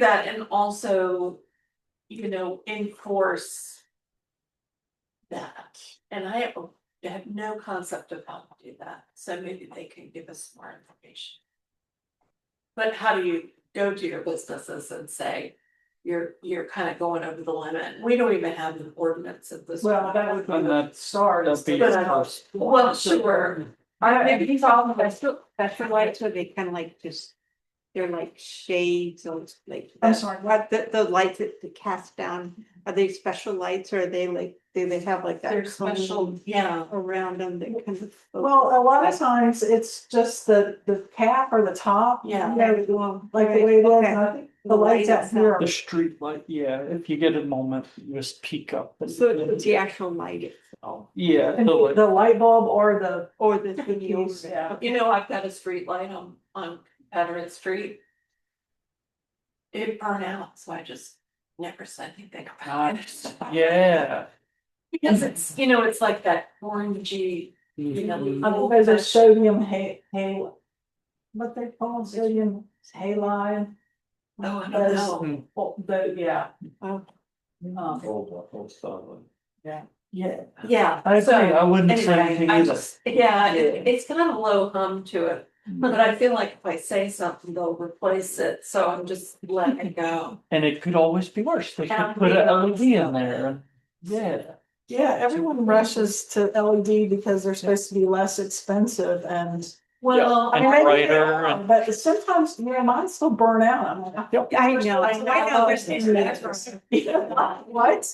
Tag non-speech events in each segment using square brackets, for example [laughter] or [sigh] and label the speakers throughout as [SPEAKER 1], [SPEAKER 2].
[SPEAKER 1] that and also, you know, enforce. That, and I have- I have no concept of how to do that, so maybe they can give us more information. But how do you go to your businesses and say, you're, you're kind of going over the limit, we don't even have an ordinance at this.
[SPEAKER 2] Well, that would be
[SPEAKER 1] point.
[SPEAKER 2] the start of the.
[SPEAKER 1] But I- Well, sure,
[SPEAKER 3] I
[SPEAKER 1] Maybe
[SPEAKER 3] think these all, that's the, that's the lights where they kind of like just, they're like shades or it's like.
[SPEAKER 2] I'm
[SPEAKER 3] that-
[SPEAKER 2] sorry.
[SPEAKER 3] What, the, the lights that they cast down, are they special lights or are they like, do they have like that?
[SPEAKER 1] they're
[SPEAKER 3] cone
[SPEAKER 1] special, yeah,
[SPEAKER 3] Around them that kind of.
[SPEAKER 2] Well, a lot of times it's just the, the cap or the top.
[SPEAKER 1] Yeah.
[SPEAKER 3] Very long.
[SPEAKER 2] Like the
[SPEAKER 3] right,
[SPEAKER 2] way it is,
[SPEAKER 3] okay.
[SPEAKER 2] and I think the lights
[SPEAKER 3] Light
[SPEAKER 2] out
[SPEAKER 3] itself.
[SPEAKER 2] here.
[SPEAKER 4] The street light, yeah, if you get a moment, you just peek up. and-
[SPEAKER 3] So it's the actual light itself
[SPEAKER 4] Yeah,
[SPEAKER 2] And
[SPEAKER 4] the light-
[SPEAKER 2] the light bulb or the.
[SPEAKER 3] or the thingy
[SPEAKER 2] Yes,
[SPEAKER 3] over it.
[SPEAKER 2] yeah.
[SPEAKER 1] you know, I've got a street light on, on Confederate Street. It burned out, so I just never said anything about it.
[SPEAKER 4] Ah, yeah.
[SPEAKER 1] Because it's, you know, it's like that orangey, you know.
[SPEAKER 2] I think there's a sodium hay, hay. What they call sodium halide,
[SPEAKER 1] Oh, I don't
[SPEAKER 2] Those-
[SPEAKER 1] know.
[SPEAKER 4] Mm-hmm.
[SPEAKER 2] oh, the, yeah,
[SPEAKER 3] Oh,
[SPEAKER 2] um,
[SPEAKER 4] Oh,
[SPEAKER 2] yeah.
[SPEAKER 1] Yeah,
[SPEAKER 4] I
[SPEAKER 1] so
[SPEAKER 4] agree, I wouldn't say
[SPEAKER 1] anyway,
[SPEAKER 4] anything
[SPEAKER 1] I
[SPEAKER 4] either.
[SPEAKER 1] just, yeah, it, it's got a low hum to it.
[SPEAKER 4] Mm-hmm.
[SPEAKER 1] But I feel like if I say something, they'll replace it, so I'm just letting it go.
[SPEAKER 4] And it could always be worse, they
[SPEAKER 1] And I'm
[SPEAKER 4] could put
[SPEAKER 1] being
[SPEAKER 4] an LED in
[SPEAKER 1] honest.
[SPEAKER 4] there, and- yeah.
[SPEAKER 2] Yeah, everyone rushes to LED because they're supposed to be less expensive and.
[SPEAKER 1] Well,
[SPEAKER 4] And
[SPEAKER 2] I mean, maybe they
[SPEAKER 4] brighter
[SPEAKER 2] are,
[SPEAKER 4] and-
[SPEAKER 2] But sometimes, you know, mine still burn out, I'm like, [laughs]
[SPEAKER 3] I know, I
[SPEAKER 1] I know,
[SPEAKER 3] know,
[SPEAKER 1] there's
[SPEAKER 3] there's-
[SPEAKER 2] Yeah, What?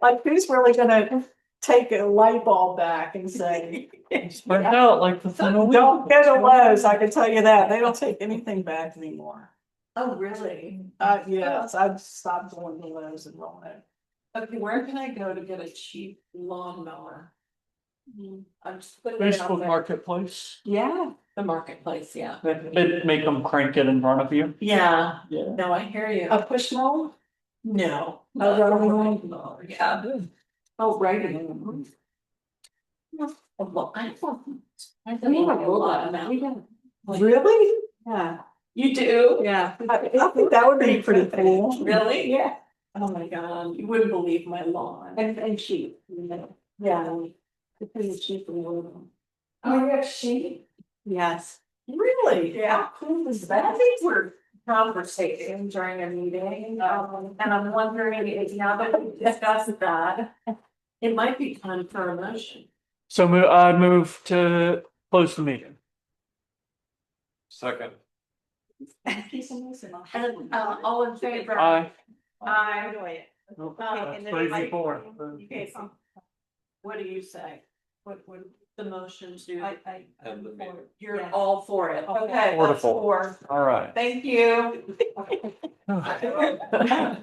[SPEAKER 2] Like, who's really gonna take a light bulb back and say,
[SPEAKER 4] Spread out like the thin wheel.
[SPEAKER 2] don't go to Lowe's, I can tell you that, they don't take anything back anymore.
[SPEAKER 1] oh, really?
[SPEAKER 2] Uh, yes, I've stopped going to Lowe's and rolling it.
[SPEAKER 1] Okay, where can I go to get a cheap lawnmower? I'm just putting it out
[SPEAKER 4] Facebook
[SPEAKER 1] there,
[SPEAKER 4] Marketplace,
[SPEAKER 3] yeah,
[SPEAKER 1] the marketplace, yeah.
[SPEAKER 4] it'd make them crank it in front of you.
[SPEAKER 1] Yeah,
[SPEAKER 4] Yeah.
[SPEAKER 1] no, I hear you.
[SPEAKER 2] A push mower?
[SPEAKER 1] No.
[SPEAKER 2] A rolling one?
[SPEAKER 1] lawnmower, Yeah. Oh, right. Well, I don't. I don't
[SPEAKER 3] We
[SPEAKER 1] know
[SPEAKER 3] have
[SPEAKER 1] a lot about.
[SPEAKER 3] we don't-
[SPEAKER 2] Really?
[SPEAKER 3] yeah,
[SPEAKER 1] You do?
[SPEAKER 3] yeah.
[SPEAKER 2] I, I think that would be pretty cool.
[SPEAKER 1] Really?
[SPEAKER 2] Yeah.
[SPEAKER 1] Oh my god, you wouldn't believe my lawn.
[SPEAKER 3] And, and she, you know,
[SPEAKER 1] Yeah.
[SPEAKER 3] it's pretty cheap and little.
[SPEAKER 1] Oh, you have sheep?
[SPEAKER 3] Yes.
[SPEAKER 1] Really?
[SPEAKER 2] Yeah.
[SPEAKER 1] How Cool is that. These were conversations during a meeting, um, and I'm wondering if now that we discussed that. It might be time for a motion.
[SPEAKER 4] So mo- I move to close the meeting.
[SPEAKER 5] Second.
[SPEAKER 1] And, uh, all in favor?
[SPEAKER 4] Aye.
[SPEAKER 1] Aye.
[SPEAKER 3] Okay, Um, and then
[SPEAKER 4] Three,
[SPEAKER 3] like-
[SPEAKER 4] four.
[SPEAKER 3] Okay, so-
[SPEAKER 1] What do you say? What would the motion do?
[SPEAKER 3] I, I.
[SPEAKER 5] And the mayor.
[SPEAKER 1] You're
[SPEAKER 3] Yes.
[SPEAKER 1] all for it. Okay. that's
[SPEAKER 4] Wonderful.
[SPEAKER 1] [laughs] four.
[SPEAKER 4] All right.
[SPEAKER 1] Thank you.